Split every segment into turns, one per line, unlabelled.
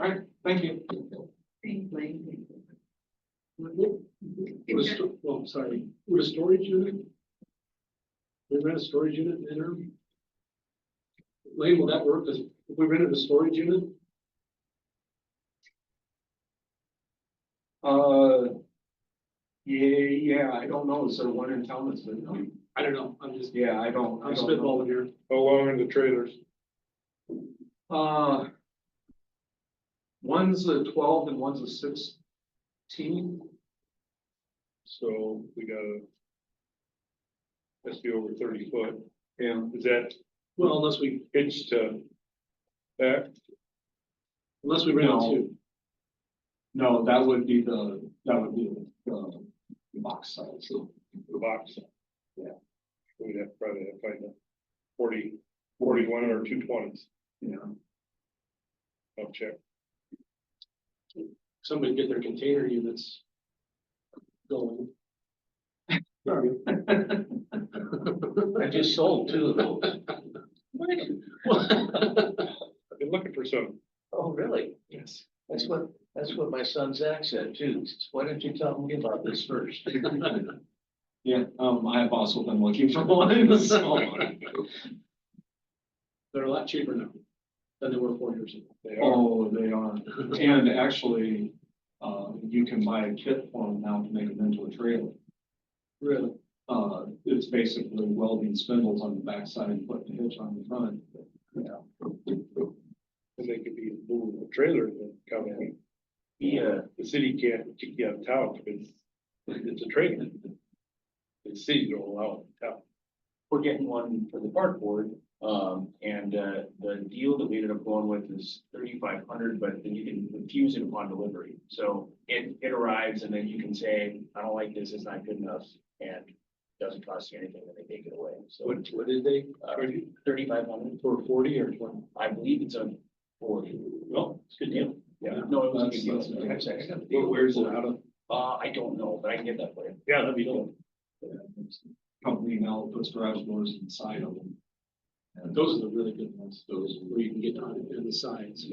right, thank you.
Was, well, oh, sorry, would a storage unit? We rent a storage unit in the interim? Lane, will that work? Does, if we rented a storage unit?
Uh, yeah, yeah, I don't know, is there one in town that's been, done?
I don't know, I'm just,
yeah, I don't, I
I'm
don't know.
spitballing here.
How long are the trailers?
Uh. One's a twelve and one's a sixteen,
So we got a. Has to be over thirty foot.
yeah,
Is that
Well, unless we,
hitched to? That,
unless we rent
No.
two.
no, that would be the, that would be the, the box size, so
the box?
Yeah.
We'd have to probably have to find a forty, forty-one or two twenties.
Yeah.
I'll check.
Somebody get their container units. Going. Sorry.
I just sold two of those.
I've been looking for some.
Oh, really?
Yes.
That's what, that's what my son Zach said too. Why don't you tell me about this first?
Yeah, um, I have also been looking for one, so.
They're a lot cheaper now than they were four years ago.
They are.
Oh, they are, and actually, uh, you can buy a kit for them now to make them into a trailer.
Really?
Uh, it's basically welding spindles on the backside and putting a hitch on the front.
And they could be moving the trailer and come in.
uh,
Yeah,
The city can't kick you out of town because it's a trailer. The city don't allow it in town.
we're getting one for the park board. Um, and, uh, the deal that we ended up going with is thirty-five hundred, but then you can refuse it upon delivery. So it, it arrives and then you can say, I don't like this, it's not good enough, and doesn't cost you anything, and they take it away. So
What, what did they,
uh, thirty-five hundred,
for forty or twenty?
I believe it's a forty. Well, it's a good deal. Yeah, no, it was a
That's,
good deal.
that's, that's,
I got the
Where-
deal.
Where's it out of?
Uh, I don't know, but I can get that for you.
Yeah, that'd be cool.
company now puts garage doors inside of them.
And Those are the really good ones, those where you can get on it and the sides.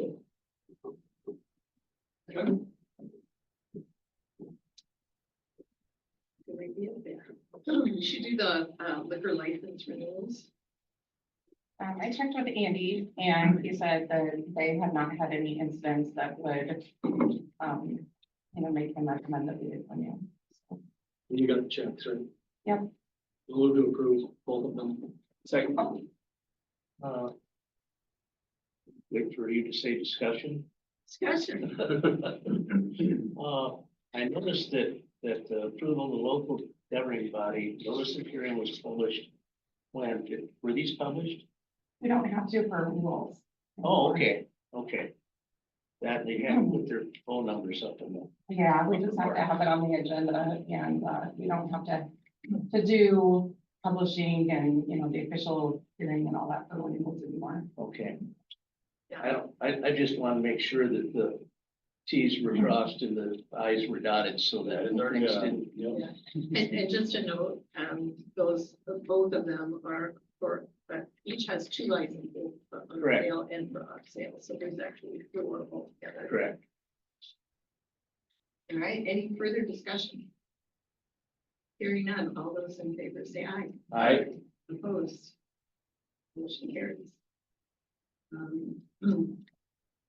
Good idea there. You should do the uh, liquor license renewals.
Um, I checked with Andy and he said that they have not had any incidents that would, um, you know, make them recommend that we do one, yeah.
And you got the checks, right?
Yep.
We'll move to approve both of them.
Second.
uh. Wait for you to say discussion.
Discussion.
Uh, I noticed that, that the approval of the local governing body, notice of hearing was published. When, did- were these published?
We don't have to for rules.
Oh, okay, okay. That they have with their phone numbers up in there.
Yeah, we just have to have it on the agenda and, uh, we don't have to, to do publishing and, you know, the official hearing and all that for renewals anymore.
Okay, I
Yeah.
don't, I, I just want to make sure that the Ts were crossed and the Is were dotted so that learning didn't. Mm-hmm.
And, and just a note, um, those, both of them are for, uh, each has two licenses for on
Correct.
sale and for off sale. So there's actually four altogether.
Correct.
All right, any further discussion? Hearing none, all those in favor say aye.
I,
Opposed? Motion carries. Um,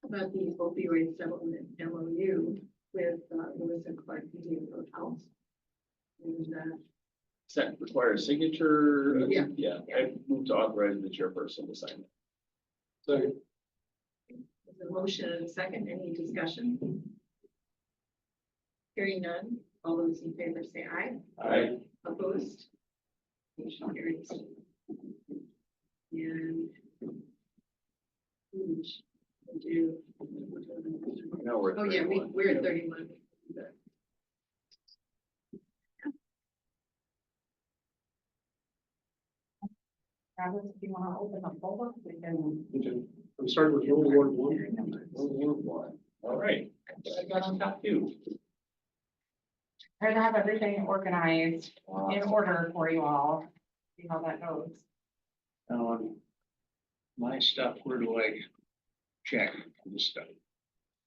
About the opioid settlement MOU with uh, Lewis and Clark Media Hotels. And uh,
Second requires signature.
Yeah.
Yeah, I moved to authorize the chairperson to sign.
Sorry,
the motion and a second, any discussion? Hearing none, all those in favor say aye.
I,
Opposed? Motion carries. And. Hmm, we do-
Now we're at
Oh, yeah, we,
31.
we're at thirty-one.
Travis, if you wanna open the folder, we can.
okay. I'm starting with World War One.
All right, I got on top two.
Try to have everything organized in order for you all, see how that goes.
um, my stuff, where do I check this stuff?